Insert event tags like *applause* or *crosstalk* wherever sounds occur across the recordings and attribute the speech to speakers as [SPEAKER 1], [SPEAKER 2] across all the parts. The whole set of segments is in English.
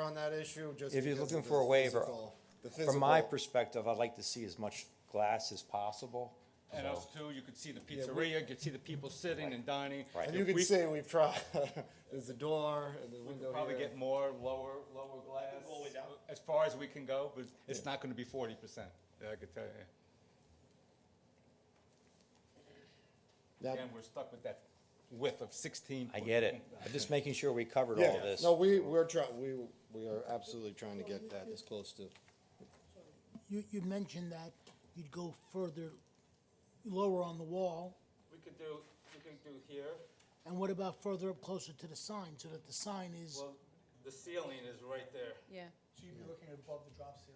[SPEAKER 1] on that issue, just.
[SPEAKER 2] If he's
[SPEAKER 1] because
[SPEAKER 2] looking
[SPEAKER 1] of the
[SPEAKER 2] for a waiver,
[SPEAKER 1] physical- the
[SPEAKER 2] From my
[SPEAKER 1] physical-
[SPEAKER 2] perspective, I'd like to see as much glass as possible.
[SPEAKER 3] And us too, you could see the
[SPEAKER 1] Yeah, we-
[SPEAKER 3] pizzeria, you could see the people sitting and dining.
[SPEAKER 2] Right.
[SPEAKER 1] And
[SPEAKER 3] If
[SPEAKER 1] you can
[SPEAKER 3] we-
[SPEAKER 1] see, we've tried, *laughs* there's a door and the
[SPEAKER 3] We
[SPEAKER 1] window
[SPEAKER 3] could probably
[SPEAKER 1] here.
[SPEAKER 3] get more, lower, lower glass.
[SPEAKER 4] all the way down.
[SPEAKER 3] As far as we can go, but it's not gonna be forty percent, I could tell you.
[SPEAKER 1] That-
[SPEAKER 3] And we're stuck with that width of sixteen.
[SPEAKER 2] I
[SPEAKER 3] foot.
[SPEAKER 2] get it. I'm just making sure we covered all
[SPEAKER 1] Yeah,
[SPEAKER 2] this.
[SPEAKER 1] no, we, we're trying, we, we are absolutely trying to get that as close to,
[SPEAKER 5] You, you mentioned that you'd go further, lower on the wall,
[SPEAKER 3] We could do, we could do here,
[SPEAKER 5] and what about further up closer to the sign, so that the sign is,
[SPEAKER 3] the ceiling is right there.
[SPEAKER 6] Yeah,
[SPEAKER 7] So you'd be looking at above the drop ceiling.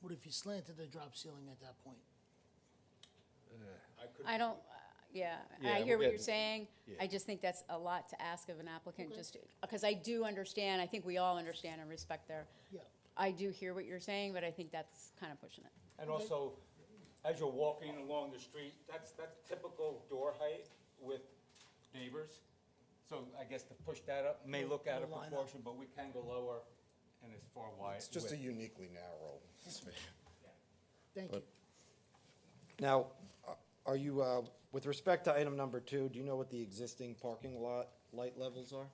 [SPEAKER 5] what if you slanted the drop ceiling at that point?
[SPEAKER 6] I don't, uh, yeah,
[SPEAKER 3] Yeah,
[SPEAKER 6] I hear
[SPEAKER 3] yeah,
[SPEAKER 6] what you're
[SPEAKER 3] th-
[SPEAKER 6] saying. I just think that's a lot to ask of an applicant, just, because I do understand, I think we all understand and respect their,
[SPEAKER 5] Yeah.
[SPEAKER 6] I do hear what you're saying, but I think that's kind of pushing it.
[SPEAKER 3] And also, as you're walking along the street, that's, that's typical door height with neighbors. So I guess to push that up may look out of
[SPEAKER 5] Line up.
[SPEAKER 3] proportion, but we can go lower and it's far wide.
[SPEAKER 1] it's just a
[SPEAKER 3] width.
[SPEAKER 1] uniquely narrow space.
[SPEAKER 5] Thank you.
[SPEAKER 1] Now, uh, are you, uh, with respect to item number two, do you know what the existing parking lot light levels are?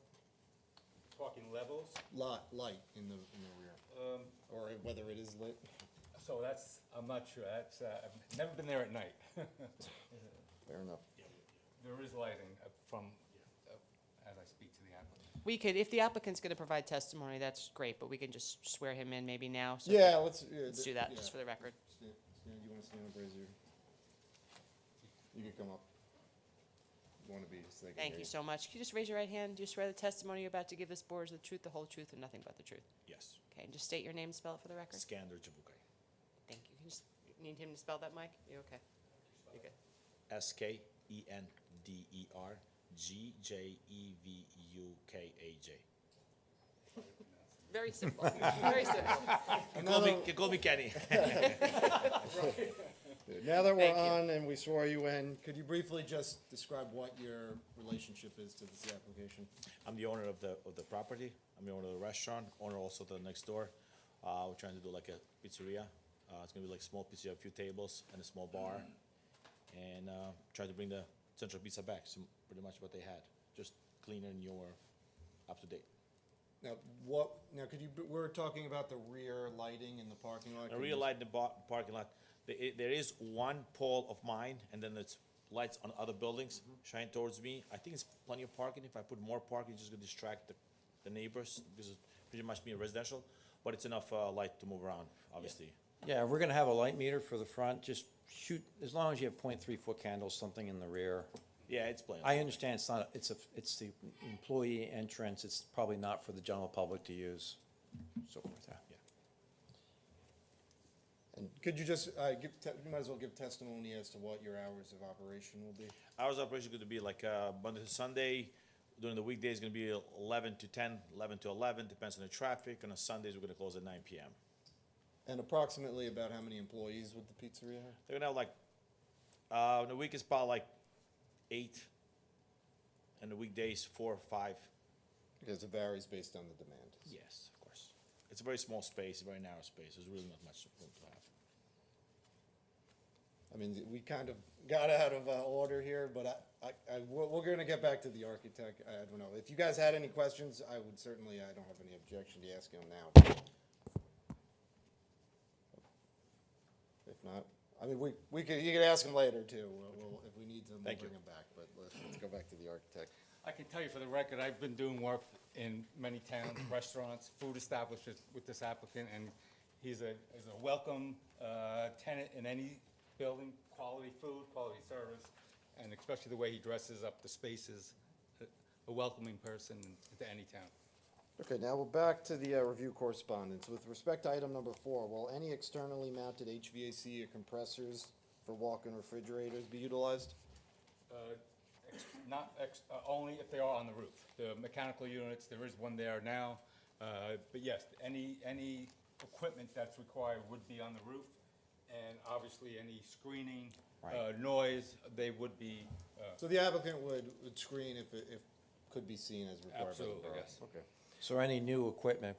[SPEAKER 3] Talking levels,
[SPEAKER 1] Lot, light in the, in the rear,
[SPEAKER 3] um,
[SPEAKER 1] or whether it is lit?
[SPEAKER 3] so that's, I'm not sure, that's, uh, I've never been there at night. *laughs*
[SPEAKER 1] Fair enough.
[SPEAKER 3] There is lighting uh, from, uh, as I speak to the applicant.
[SPEAKER 8] We could, if the applicant's gonna provide testimony, that's great, but we can just swear him in maybe now. so
[SPEAKER 1] Yeah, let's, yeah.
[SPEAKER 8] Let's do that, just for the record.
[SPEAKER 1] Stan, Stan, you wanna stand up, raise your? You can come up. Wanna be, so they can
[SPEAKER 8] Thank
[SPEAKER 1] hear
[SPEAKER 8] you so much. Can you just raise your right hand? Do you swear the testimony you're about to give this board is the truth, the whole truth, and nothing but the truth?
[SPEAKER 4] Yes.
[SPEAKER 8] Okay, and just state your name, and spell it for the record.
[SPEAKER 4] Skander Jabukai.
[SPEAKER 8] Thank you. Can you just, need him to spell that, Mike? You okay? You good?
[SPEAKER 4] S K E N D E R G J E V U K A J.
[SPEAKER 8] Very simple, very simple.
[SPEAKER 4] You call me, you call me Kenny.
[SPEAKER 1] Now that we're
[SPEAKER 8] Thank you.
[SPEAKER 1] on and we swore you in, could you briefly just describe what your relationship is to this application?
[SPEAKER 4] I'm the owner of the, of the property. I'm the owner of the restaurant, owner also the next door. Uh, we're trying to do like a pizzeria. Uh, it's gonna be like small pizzeria, a few tables and a small bar. And, uh, try to bring the central pizza back, so pretty much what they had, just cleaner and newer, up to date.
[SPEAKER 1] Now, what, now could you, we're talking about the rear lighting in the parking lot.
[SPEAKER 4] I
[SPEAKER 1] Could you-
[SPEAKER 4] realize the bar, parking lot, there, i- there is one pole of mine, and then it's lights on other buildings shine towards me. I think it's plenty of parking, if I put more parking, it's just gonna distract the, the neighbors, because it's pretty much being residential, but it's enough, uh, light to move around, obviously.
[SPEAKER 2] Yeah, we're gonna have a light meter for the front, just shoot, as long as you have point three foot candles, something in the rear.
[SPEAKER 4] Yeah, it's plenty.
[SPEAKER 2] I understand it's not, it's a, it's the employee entrance, it's probably not for the general public to use, so forth, yeah.
[SPEAKER 1] And Could you just, uh, give, te- you might as well give testimony as to what your hours of operation will be?
[SPEAKER 4] Hours of operation gonna be like, uh, Monday to Sunday, during the weekdays, gonna be eleven to 10, 11 to eleven, depends on the traffic, and on Sundays, we're gonna close at nine PM.
[SPEAKER 1] And approximately about how many employees would the pizzeria have?
[SPEAKER 4] They're gonna have like, uh, in the week it's about like eight, and the weekdays four or five.
[SPEAKER 1] Because it varies based on the demand.
[SPEAKER 4] Yes, of course. It's a very small space, a very narrow space. There's really not much room to have.
[SPEAKER 1] I mean, we kind of got out of uh, order here, but I, I, I, we're, we're gonna get back to the architect. I don't know. If you guys had any questions, I would certainly, I don't have any objection to asking them now. If not, I mean, we, we could, you could ask them later too. We'll- We'll, if we need them, we'll
[SPEAKER 4] Thank you.
[SPEAKER 1] bring them back, but let's, let's go back to the architect.
[SPEAKER 3] I can tell you for the record, I've been doing work in many towns, *coughs* restaurants, food establishments with this applicant, and he's a, is a welcome uh, tenant in any building, quality food, quality service, and especially the way he dresses up the spaces, a- a welcoming person to any town.
[SPEAKER 1] Okay, now we're back to the uh, review correspondence. With respect to item number four, will any externally mounted HVAC or compressors for walk-in refrigerators be utilized?
[SPEAKER 3] Uh, ex- Not, ex- uh, only if they are on the roof. The mechanical units, there is one there now, uh, but yes, any, any equipment that's required would be on the roof, and obviously, any screening, uh,
[SPEAKER 2] Right.
[SPEAKER 3] noise, they would be, uh,
[SPEAKER 1] So the applicant would, would screen if, it- if could be seen as required by the
[SPEAKER 3] absolutely,
[SPEAKER 1] borough?
[SPEAKER 3] yes.
[SPEAKER 2] So any new equipment